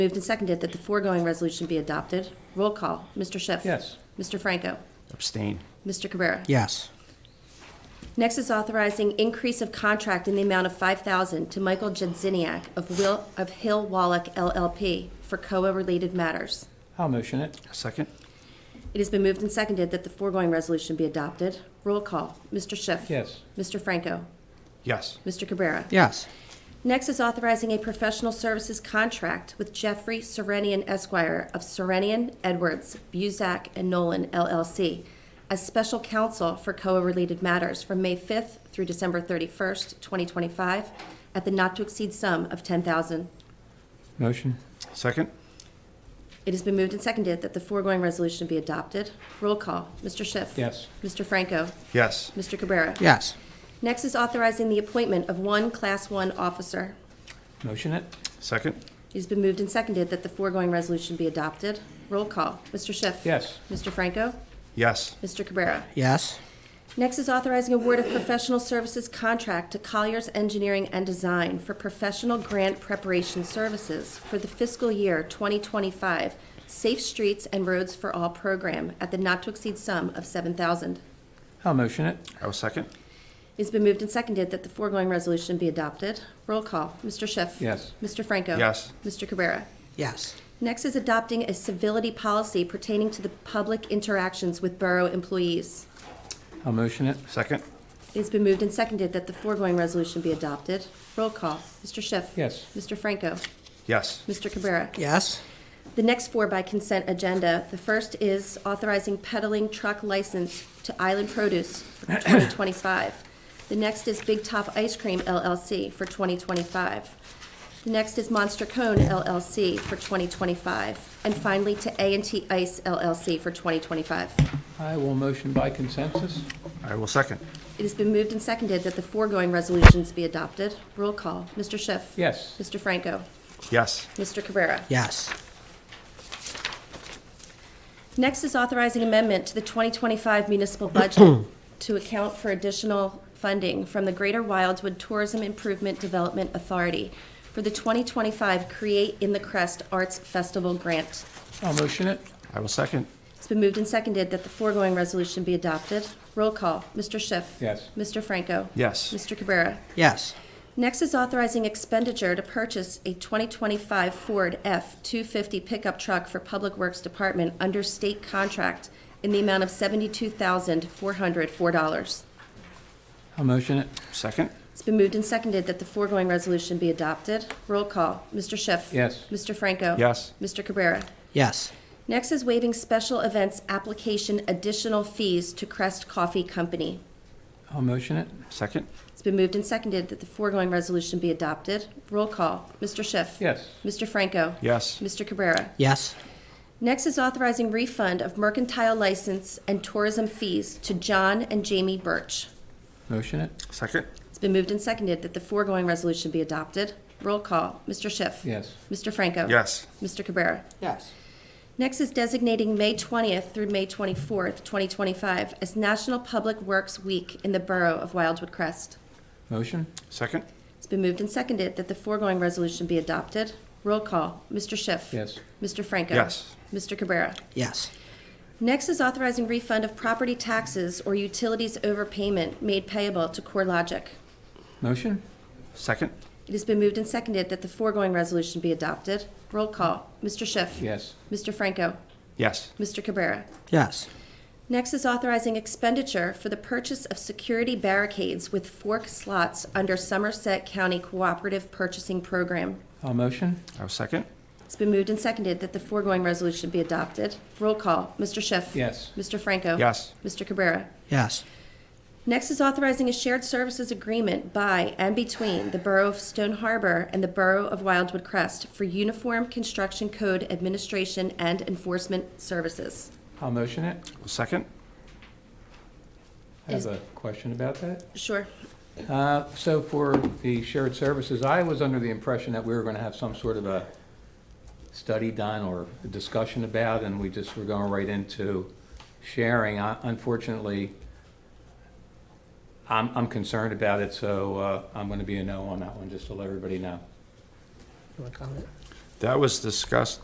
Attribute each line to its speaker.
Speaker 1: Moved and seconded that the foregoing resolution be adopted. Roll call. Mr. Schiff.
Speaker 2: Yes.
Speaker 1: Mr. Franco.
Speaker 3: Abstain.
Speaker 1: Mr. Cabrera.
Speaker 4: yes,
Speaker 1: Next is authorizing increase of contract in the amount of 5000 to Michael Jedziniak of Will, of Hill Wallach LLP for COA-related matters.
Speaker 2: I'll motion it.
Speaker 3: Second?
Speaker 1: It has been moved and seconded that the foregoing resolution be adopted. Roll call. Mr. Schiff.
Speaker 2: Yes.
Speaker 1: Mr. Franco.
Speaker 3: Yes.
Speaker 1: Mr. Cabrera.
Speaker 4: yes,
Speaker 1: Next is authorizing a professional services contract with Jeffrey Serenian Esquire of Serenian, Edwards, Buzak, and Nolan LLC as special counsel for COA-related matters from May 5th through December 31st, 2025, at the not-to-exceed sum of 10000
Speaker 2: Motion.
Speaker 3: Second?
Speaker 1: It has been moved and seconded that the foregoing resolution be adopted. Roll call. Mr. Schiff.
Speaker 2: Yes.
Speaker 1: Mr. Franco.
Speaker 3: Yes.
Speaker 1: Mr. Cabrera.
Speaker 4: yes,
Speaker 1: Next is authorizing the appointment of one Class 1 officer.
Speaker 2: Motion it.
Speaker 3: Second?
Speaker 1: It has been moved and seconded that the foregoing resolution be adopted. Roll call. Mr. Schiff.
Speaker 2: Yes.
Speaker 1: Mr. Franco.
Speaker 3: Yes.
Speaker 1: Mr. Cabrera.
Speaker 4: yes,
Speaker 1: Next is authorizing award of professional services contract to Colliers Engineering and Design for professional grant preparation services for the fiscal year 2025 Safe Streets and Roads for All program at the not-to-exceed sum of 7000
Speaker 2: I'll motion it.
Speaker 3: I will second.
Speaker 1: It's been moved and seconded that the foregoing resolution be adopted. Roll call. Mr. Schiff.
Speaker 2: Yes.
Speaker 1: Mr. Franco.
Speaker 3: Yes.
Speaker 1: Mr. Cabrera.
Speaker 4: yes,
Speaker 1: Next is adopting a civility policy pertaining to the public interactions with borough employees.
Speaker 2: I'll motion it.
Speaker 3: Second?
Speaker 1: It has been moved and seconded that the foregoing resolution be adopted. Roll call. Mr. Schiff.
Speaker 2: Yes.
Speaker 1: Mr. Franco.
Speaker 3: Yes.
Speaker 1: Mr. Cabrera.
Speaker 4: yes,
Speaker 1: The next four by consent agenda. The first is authorizing peddling truck license to Island Produce for 2025. The next is Big Top Ice Cream LLC for 2025. The next is Monster Cone LLC for 2025. And finally, to a and T Ice LLC for 2025.
Speaker 2: I will motion by consensus.
Speaker 3: I will second.
Speaker 1: It has been moved and seconded that the foregoing resolutions be adopted. Roll call. Mr. Schiff.
Speaker 2: Yes.
Speaker 1: Mr. Franco.
Speaker 3: Yes.
Speaker 1: Mr. Cabrera.
Speaker 4: yes,
Speaker 1: Next is authorizing amendment to the 2025 municipal budget to account for additional funding from the Greater Wildwood Tourism Improvement Development Authority for the 2025 Create in the Crest Arts Festival Grant.
Speaker 2: I'll motion it.
Speaker 3: I will second.
Speaker 1: It's been moved and seconded that the foregoing resolution be adopted. Roll call. Mr. Schiff.
Speaker 2: Yes.
Speaker 1: Mr. Franco.
Speaker 3: Yes.
Speaker 1: Mr. Cabrera.
Speaker 4: yes,
Speaker 1: Next is authorizing expenditure to purchase a 2025 Ford F-250 pickup truck for Public Works Department under state contract in the amount of $72,404.
Speaker 2: I'll motion it.
Speaker 3: Second?
Speaker 1: It's been moved and seconded that the foregoing resolution be adopted. Roll call. Mr. Schiff.
Speaker 2: Yes.
Speaker 1: Mr. Franco.
Speaker 3: Yes.
Speaker 1: Mr. Cabrera.
Speaker 4: yes,
Speaker 1: Next is waiving special events application additional fees to Crest Coffee Company.
Speaker 2: I'll motion it.
Speaker 3: Second?
Speaker 1: It's been moved and seconded that the foregoing resolution be adopted. Roll call. Mr. Schiff.
Speaker 2: Yes.
Speaker 1: Mr. Franco.
Speaker 3: Yes.
Speaker 1: Mr. Cabrera.
Speaker 4: yes,
Speaker 1: Next is authorizing refund of mercantile license and tourism fees to John and Jamie Birch.
Speaker 2: Motion it.
Speaker 3: Second?
Speaker 1: It's been moved and seconded that the foregoing resolution be adopted. Roll call. Mr. Schiff.
Speaker 2: Yes.
Speaker 1: Mr. Franco.
Speaker 3: Yes.
Speaker 1: Mr. Cabrera.
Speaker 4: yes,
Speaker 1: Next is designating May 20th through May 24th, 2025, as National Public Works Week in the Borough of Wildwood Crest.
Speaker 2: Motion.
Speaker 3: Second?
Speaker 1: It's been moved and seconded that the foregoing resolution be adopted. Roll call. Mr. Schiff.
Speaker 2: Yes.
Speaker 1: Mr. Franco.
Speaker 3: Yes.
Speaker 1: Mr. Cabrera.
Speaker 4: yes,
Speaker 1: Next is authorizing refund of property taxes or utilities overpayment made payable to CoreLogic.
Speaker 2: Motion.
Speaker 3: Second?
Speaker 1: It has been moved and seconded that the foregoing resolution be adopted. Roll call. Mr. Schiff.
Speaker 2: Yes.
Speaker 1: Mr. Franco.
Speaker 3: Yes.
Speaker 1: Mr. Cabrera.
Speaker 4: yes,
Speaker 1: Next is authorizing expenditure for the purchase of security barricades with fork slots under Somerset County Cooperative Purchasing Program.
Speaker 2: I'll motion.
Speaker 3: I will second.
Speaker 1: It's been moved and seconded that the foregoing resolution be adopted. Roll call. Mr. Schiff.
Speaker 2: Yes.
Speaker 1: Mr. Franco.
Speaker 3: Yes.
Speaker 1: Mr. Cabrera.
Speaker 4: yes,
Speaker 1: Next is authorizing a shared services agreement by and between the Borough of Stone Harbor and the Borough of Wildwood Crest for Uniform Construction Code Administration and Enforcement Services.
Speaker 2: I'll motion it.
Speaker 3: I will second.
Speaker 2: I have a question about that.
Speaker 1: Sure.
Speaker 2: Uh, So for the shared services, I was under the impression that we were going to have some sort of a study done or a discussion about, and we just were going right into sharing. I- Unfortunately, I'm, I'm concerned about it, so uh, I'm going to be a no on that one, just to let everybody know.
Speaker 4: you want to comment?
Speaker 3: That was discussed